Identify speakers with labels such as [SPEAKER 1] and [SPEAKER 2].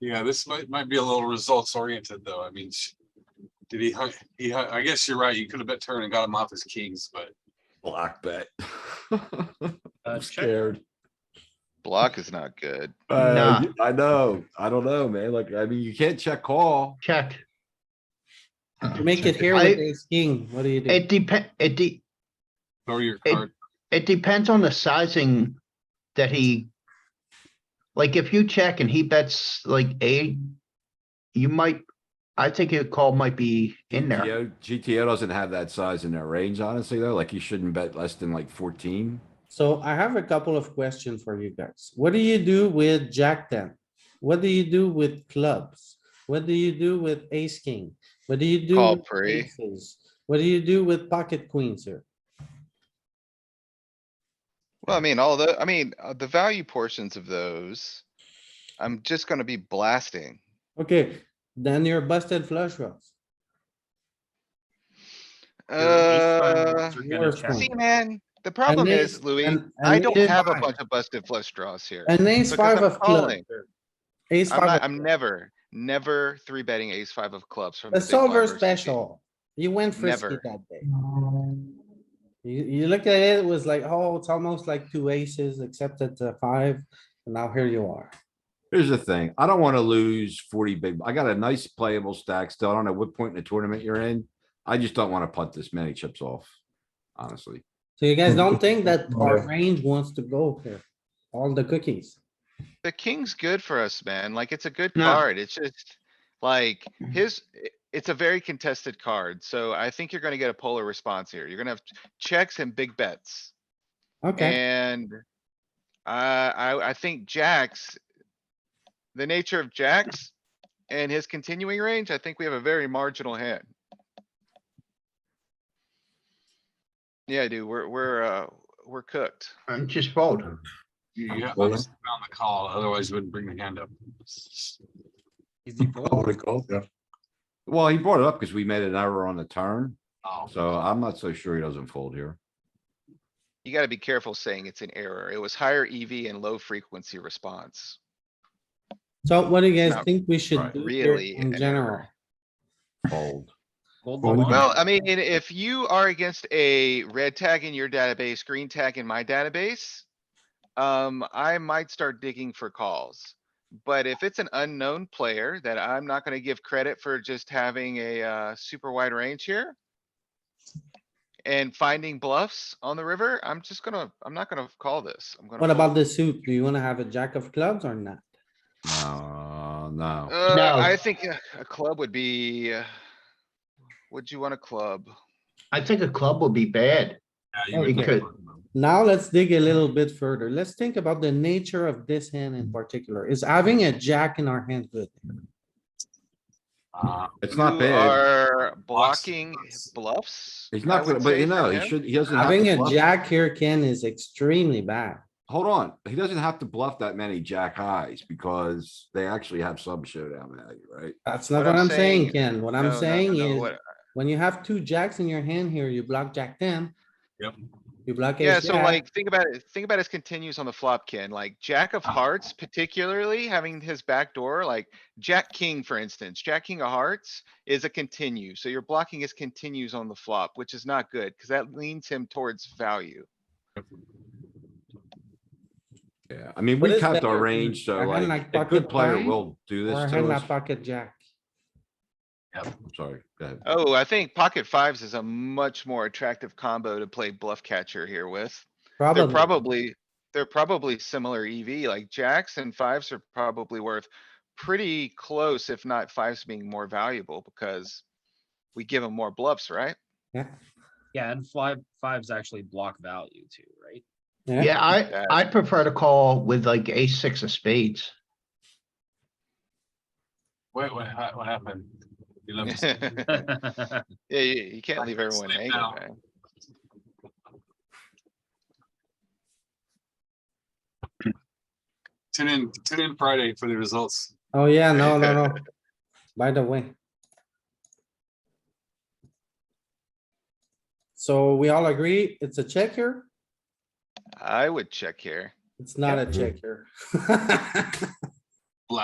[SPEAKER 1] Yeah, this might, might be a little results oriented though. I mean, sh- did he, hu- he, hu- I guess you're right. You could have bet turn and got him off his kings, but
[SPEAKER 2] block bet.
[SPEAKER 3] Uh,
[SPEAKER 2] I'm
[SPEAKER 3] check.
[SPEAKER 2] scared.
[SPEAKER 4] Block is not good.
[SPEAKER 2] Uh, y- I know, I don't know, man. Like, I mean, you can't check call.
[SPEAKER 5] Check.
[SPEAKER 3] You Make it here
[SPEAKER 5] I-
[SPEAKER 3] with ace king, what do you do?
[SPEAKER 5] It depend, it de-
[SPEAKER 1] throw your
[SPEAKER 5] Hey.
[SPEAKER 1] card.
[SPEAKER 5] it depends on the sizing that he. Like if you check and he bets like eight, you might, I think a call might be in there.
[SPEAKER 2] GTO GTO doesn't have that size in their range, honestly, though. Like, you shouldn't bet less than like fourteen.
[SPEAKER 3] So I have a couple of questions for you guys. What do you do with jack ten? What do you do with clubs? What do you do with ace king? What do you do?
[SPEAKER 4] Call
[SPEAKER 3] with
[SPEAKER 4] pre.
[SPEAKER 3] aces? What do you do with pocket queens here?
[SPEAKER 4] Well, I mean, all the, I mean, uh, the value portions of those. I'm just gonna be blasting.
[SPEAKER 3] Okay, then you're busted flush draws.
[SPEAKER 4] Uh,
[SPEAKER 3] You're worse
[SPEAKER 4] see,
[SPEAKER 3] one.
[SPEAKER 4] man, the problem
[SPEAKER 3] they-
[SPEAKER 4] is, Louis,
[SPEAKER 3] And-
[SPEAKER 4] I
[SPEAKER 3] and
[SPEAKER 4] don't
[SPEAKER 3] ace
[SPEAKER 4] have a
[SPEAKER 3] five.
[SPEAKER 4] bunch of busted flush draws here.
[SPEAKER 3] An ace
[SPEAKER 4] because
[SPEAKER 3] five
[SPEAKER 4] I'm
[SPEAKER 3] of clubs.
[SPEAKER 4] calling.
[SPEAKER 3] here. Ace
[SPEAKER 4] I'm
[SPEAKER 3] five.
[SPEAKER 4] not,
[SPEAKER 3] of
[SPEAKER 4] I'm never, never three betting ace five of clubs from. the
[SPEAKER 3] The
[SPEAKER 4] big blind
[SPEAKER 3] solver
[SPEAKER 4] versus the
[SPEAKER 3] special. You went frisky
[SPEAKER 4] Never.
[SPEAKER 3] that day. You, you looked at it, it was like, oh, it's almost like two aces except at the five. And now here you are.
[SPEAKER 2] Here's the thing, I don't wanna lose forty big, I got a nice playable stack still. I don't know what point in the tournament you're in. I just don't wanna punt this many chips off, honestly.
[SPEAKER 3] So you guys don't think that our range wants to go here? All the cookies.
[SPEAKER 4] The king's good for us, man. Like, it's a good
[SPEAKER 5] No.
[SPEAKER 4] card. It's just like his, i- it's a very contested card. So I think you're gonna get a polar response here. You're gonna have checks and big bets
[SPEAKER 3] Okay,
[SPEAKER 4] and uh, I, I think jacks, the nature of jacks and his continuing range, I think we have a very marginal hand. Yeah, I do. We're, we're, uh, we're cooked.
[SPEAKER 5] I'm just fold.
[SPEAKER 1] You you have to
[SPEAKER 6] Well,
[SPEAKER 1] sit on the call, otherwise you wouldn't bring the hand up.
[SPEAKER 6] Oh, we called, yeah.
[SPEAKER 2] Well, he brought it up because we made an error on the turn,
[SPEAKER 1] Oh,
[SPEAKER 2] so I'm not so sure he doesn't fold here.
[SPEAKER 4] You gotta be careful saying it's an error. It was higher EV and low frequency response.
[SPEAKER 3] so what do you guys
[SPEAKER 4] Not
[SPEAKER 3] think we should
[SPEAKER 2] right,
[SPEAKER 3] do here
[SPEAKER 4] really
[SPEAKER 3] in
[SPEAKER 4] an
[SPEAKER 3] general?
[SPEAKER 4] error.
[SPEAKER 2] Fold.
[SPEAKER 4] Well, I mean, if you are against a red tag in your database, green tag in my database, um, I might start digging for calls. But if it's an unknown player that I'm not gonna give credit for just having a, uh, super wide range here and finding bluffs on the river, I'm just gonna, I'm not gonna call this. I'm gonna.
[SPEAKER 3] What
[SPEAKER 4] fold.
[SPEAKER 3] about the suit? Do you wanna have a jack of clubs or not?
[SPEAKER 2] Uh, no,
[SPEAKER 4] Uh,
[SPEAKER 5] No.
[SPEAKER 4] I think uh, a club would be, uh, would you want a club?
[SPEAKER 5] I think a club will be bad.
[SPEAKER 1] yeah, you would
[SPEAKER 5] Okay.
[SPEAKER 1] never.
[SPEAKER 3] Now let's dig a little bit further. Let's think about the nature of this hand in particular. Is having a jack in our hand good?
[SPEAKER 1] Uh,
[SPEAKER 2] it's not
[SPEAKER 4] You
[SPEAKER 2] bad.
[SPEAKER 4] Are blocking
[SPEAKER 1] bluffs.
[SPEAKER 4] bluffs.
[SPEAKER 2] He's
[SPEAKER 4] I
[SPEAKER 2] not,
[SPEAKER 4] would
[SPEAKER 2] gonna- but
[SPEAKER 4] say
[SPEAKER 2] you
[SPEAKER 4] for
[SPEAKER 2] know, he
[SPEAKER 4] him.
[SPEAKER 2] should, he doesn't. have to
[SPEAKER 3] Having a
[SPEAKER 2] bluff-
[SPEAKER 3] jack here, Ken, is extremely bad.
[SPEAKER 2] Hold on, he doesn't have to bluff that many jack highs because they actually have some showdown value, right?
[SPEAKER 3] That's not what I'm saying,
[SPEAKER 4] saying-
[SPEAKER 3] Ken. What
[SPEAKER 4] No,
[SPEAKER 3] I'm
[SPEAKER 4] no, no,
[SPEAKER 3] saying
[SPEAKER 4] no,
[SPEAKER 3] is,
[SPEAKER 4] what-
[SPEAKER 3] when you have two jacks in your hand here, you block jack ten.
[SPEAKER 1] Yep.
[SPEAKER 3] You block.
[SPEAKER 4] Yeah,
[SPEAKER 3] ace
[SPEAKER 4] so
[SPEAKER 3] jack.
[SPEAKER 4] like, think about it, think about his continues on the flop, Ken, like jack of hearts particularly, having his back door, like jack king, for instance, jack king of hearts is a continue, so you're blocking his continues on the flop, which is not good, cuz that leans him towards value.
[SPEAKER 2] Yeah, I mean,
[SPEAKER 3] What
[SPEAKER 2] we
[SPEAKER 3] is
[SPEAKER 2] capped our
[SPEAKER 3] better,
[SPEAKER 2] range, so
[SPEAKER 3] a hand
[SPEAKER 2] like,
[SPEAKER 3] like
[SPEAKER 2] a good
[SPEAKER 3] pocket
[SPEAKER 2] player
[SPEAKER 3] five
[SPEAKER 2] will do
[SPEAKER 3] Or
[SPEAKER 2] this
[SPEAKER 3] hand
[SPEAKER 2] to
[SPEAKER 3] like
[SPEAKER 2] us.
[SPEAKER 3] pocket jack.
[SPEAKER 2] I'm Sorry, go ahead.
[SPEAKER 4] Oh, I think pocket fives is a much more attractive combo to play bluff catcher here with. They're
[SPEAKER 3] Probably.
[SPEAKER 4] probably, they're probably similar EV, like jacks and fives are probably worth pretty close, if not fives being more valuable because we give them more bluffs, right?
[SPEAKER 3] Yeah.
[SPEAKER 7] Yeah, and five, fives actually block value too, right?
[SPEAKER 3] Yeah.
[SPEAKER 5] Yeah, I,
[SPEAKER 4] Yeah.
[SPEAKER 5] I prefer to call with like ace six of spades.
[SPEAKER 1] Wait, what, ha- what happened? You left us-
[SPEAKER 4] Yeah, you, you can't
[SPEAKER 1] Like
[SPEAKER 4] leave
[SPEAKER 1] I
[SPEAKER 4] everyone
[SPEAKER 1] said
[SPEAKER 4] hanging,
[SPEAKER 1] now.
[SPEAKER 4] man.
[SPEAKER 1] Tune in, tune in Friday for the results.
[SPEAKER 3] Oh, yeah, no, no, no. By the way. So we all agree it's a checker.
[SPEAKER 4] I would check here.
[SPEAKER 3] It's not a checker.